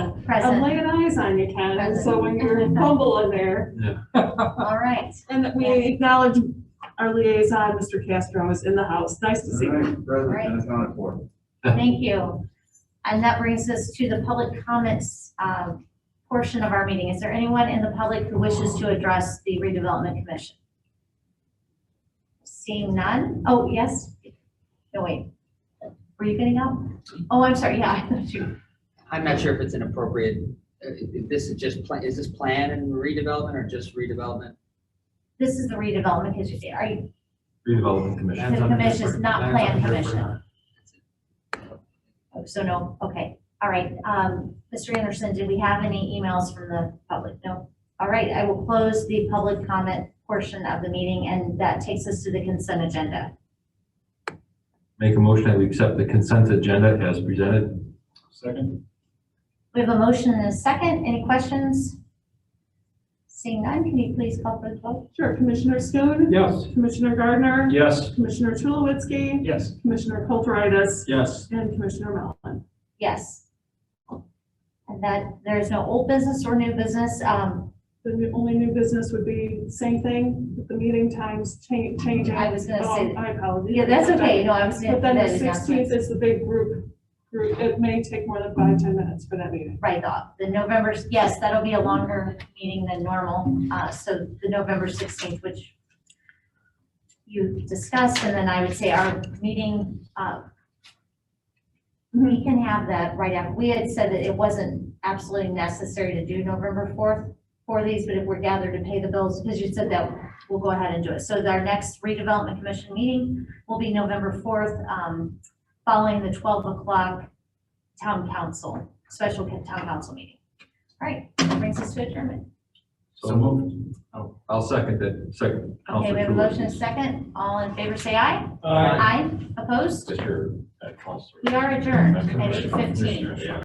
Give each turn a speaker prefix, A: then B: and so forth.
A: I'm
B: Present,
A: laying eyes on you, Ken, so when you're fumbling there.
B: all right.
A: And that we acknowledge our liaison, Mr. Castro is in the house. Nice to see
C: All
A: you.
C: right, President, and accounted for.
B: Thank you. And that brings us to the public comments uh, portion of our meeting. Is there anyone in the public who wishes to address the redevelopment commission? Seeing none? Oh, yes? No, wait. Were you getting up? Oh, I'm sorry, yeah. I thought you-
D: I'm not sure if it's an appropriate, uh, if this is just, pla- is this plan and redevelopment or just redevelopment?
B: This is the redevelopment, because you, are you,
E: Redevelopment Commission.
B: the commission is not plan commission. Oh, So no, okay, all right. Um, Mr. Anderson, did we have any emails from the public? No? All right, I will close the public comment portion of the meeting, and that takes us to the consent agenda.
E: Make a motion that we accept the consent agenda as presented.
C: Second?
B: We have a motion and a second. Any questions? Seeing none, can you please call for the vote?
A: Sure, Commissioner Schoen,
C: Yes.
A: Commissioner Gardner,
C: Yes.
A: Commissioner Tulowitzki,
C: Yes.
A: Commissioner Kulturitis,
C: Yes.
A: and Commissioner Mellon.
B: Yes. And that, there is no old business or new business. Um,
A: The new- only new business would be same thing, with the meeting times cha- changing.
B: I was gonna say-
A: Oh, I apologize.
B: yeah, that's okay. No, I was.
A: But then
B: that
A: the
B: is not-
A: sixteenth is the big group, group, it may take more than five, ten minutes for that meeting.
B: Right, the, the November, yes, that'll be a longer meeting than normal, uh, so the November sixteenth, which you discussed, and then I would say our meeting, uh, we can have that right after, we had said that it wasn't absolutely necessary to do November fourth for these, but if we're gathered to pay the bills, because you said that, we'll go ahead and do it. So our next redevelopment commission meeting will be November fourth, um, following the twelve o'clock town council special town council meeting. All right, that brings us to adjournment.
C: So moved.
E: Oh, I'll second it, second.
B: Okay,
E: Counselor
B: we have a motion and a
E: Tulowitzki.
B: second. All in favor, say aye.
C: Aye.
B: Aye. Opposed?
E: Mr. uh, Counselor.
B: We are adjourned at eight fifteen.
E: Commissioner, yeah.